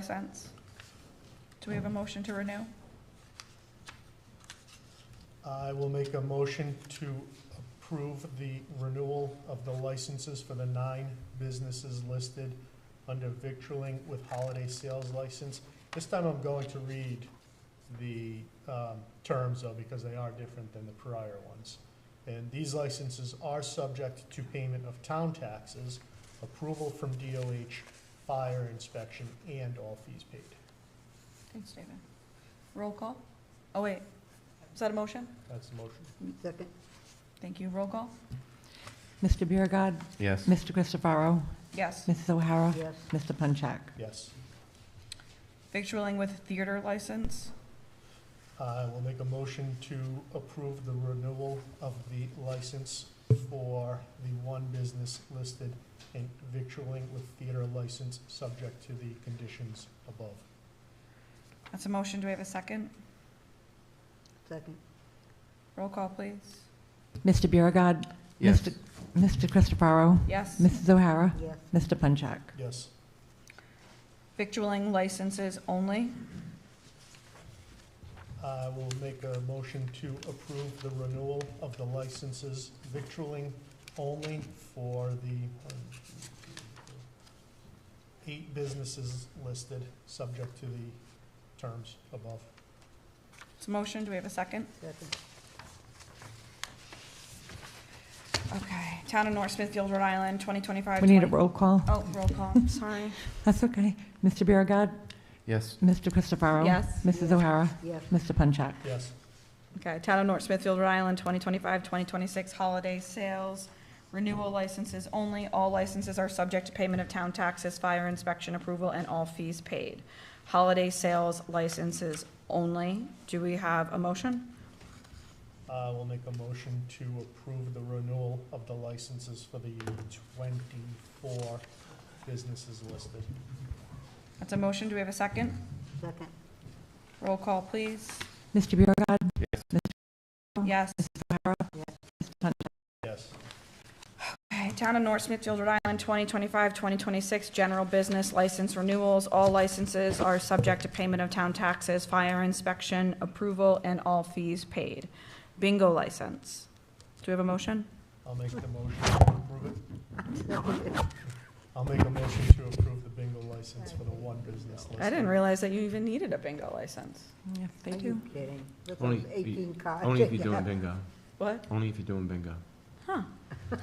license. Do we have a motion to renew? I will make a motion to approve the renewal of the licenses for the nine businesses listed under victualling with holiday sales license. This time I'm going to read the um, terms though, because they are different than the prior ones. And these licenses are subject to payment of town taxes, approval from DOH, fire inspection, and all fees paid. Thanks, David. Roll call? Oh, wait. Is that a motion? That's the motion. Second. Thank you. Roll call? Mr. Biragad. Yes. Mr. Christopherow. Yes. Mrs. O'Hara. Yes. Mr. Punchak. Yes. Victualling with theater license. I will make a motion to approve the renewal of the license for the one business listed in victualling with theater license, subject to the conditions above. That's a motion. Do we have a second? Second. Roll call, please. Mr. Biragad. Yes. Mr. Mr. Christopherow. Yes. Mrs. O'Hara. Yes. Mr. Punchak. Yes, Victualling licenses only. I will make a motion to approve the renewal of the licenses victualling only for the one, two, three, four, eight businesses listed, subject to the terms above. It's a motion. Do we have a second? Second. Okay. Town of North Smithfield, Rhode Island, 2025. We need a roll call. Oh, roll call. Sorry. That's okay. Mr. Biragad. Yes. Mr. Christopherow. Yes. Mrs. O'Hara. Yes. Mr. Punchak. Yes, Okay, Town of North Smithfield, Rhode Island, 2025, 2026 holiday sales, renewal licenses only. All licenses are subject to payment of town taxes, fire inspection approval, and all fees paid. Holiday sales licenses only. Do we have a motion? I will Uh, make a motion to approve the renewal of the licenses for the twenty-four businesses listed. That's a motion. Do we have a second? Second. Roll call, please. Mr. Biragad. Yes. Yes. Yes, Okay, Town of North Smithfield, Rhode Island, 2025, 2026, general business license renewals. All licenses are subject to payment of town taxes, fire inspection, approval, and all fees paid. Bingo license. Do we have a motion? I'll make the motion to approve it. I'll make a motion to approve the bingo license for the one business listed. I didn't realize that you even needed a bingo license. Yes, they Are do. you kidding? Look, Only those if you- eighteen cards. Only if you're Yeah. doing bingo. What? Only if you're doing bingo. Huh.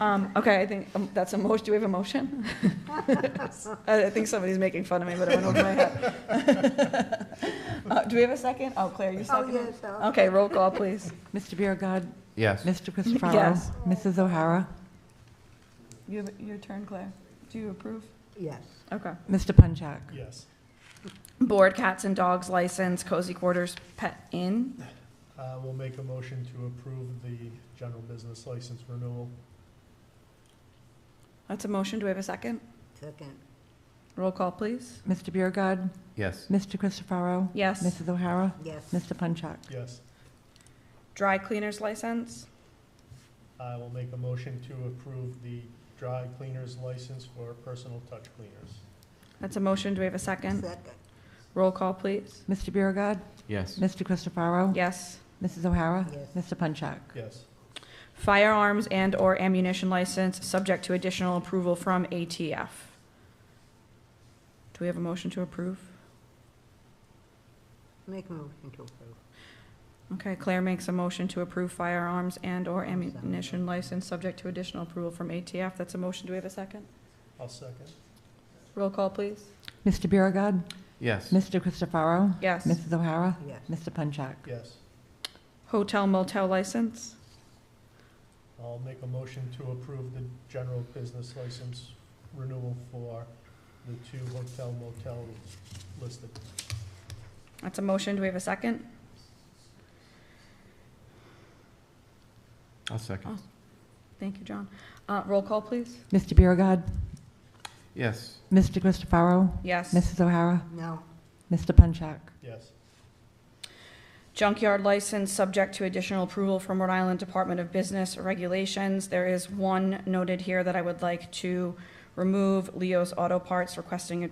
Um, okay, I think, um, that's a motion, do we have a motion? I, I think somebody's making fun of me, but it went over my head. Uh, do we have a second? Oh, Claire, you Oh, second? yes, oh. Okay, roll call, please. Mr. Biragad. Yes. Mr. Christopherow. Yes. Mrs. O'Hara. You have, your turn, Claire. Do you approve? Yes. Okay. Mr. Punchak. Yes, Board cats and dogs license, cozy quarters pet inn. I will Uh, make a motion to approve the general business license renewal. That's a motion. Do we have a second? Second. Roll call, please. Mr. Biragad. Yes. Mr. Christopherow. Yes. Mrs. O'Hara. Yes. Mr. Punchak. Yes, Dry cleaners license. I will make a motion to approve the dry cleaners license for personal touch cleaners. That's a motion. Do we have a second? Second. Roll call, please. Mr. Biragad. Yes. Mr. Christopherow. Yes. Mrs. O'Hara. Yes. Mr. Punchak. Yes, Firearms and/or ammunition license, subject to additional approval from ATF. Do we have a motion to approve? Make a motion to approve. Okay, Claire makes a motion to approve firearms and/or ammunition license, subject to additional approval from ATF. That's a motion. Do we have a second? I'll second. Roll call, please. Mr. Biragad. Yes. Mr. Christopherow. Yes. Mrs. O'Hara. Yes. Mr. Punchak. Yes. Hotel motel license. I'll make a motion to approve the general business license renewal for the two hotel motel listed. That's a motion. Do we have a second? I'll second. Thank you, John. Uh, roll call, please. Mr. Biragad. Yes. Mr. Christopherow. Yes. Mrs. O'Hara. No. Mr. Punchak. Yes, Junkyard license, subject to additional approval from Rhode Island Department of Business Regulations. There is one noted here that I would like to remove Leo's Auto Parts requesting a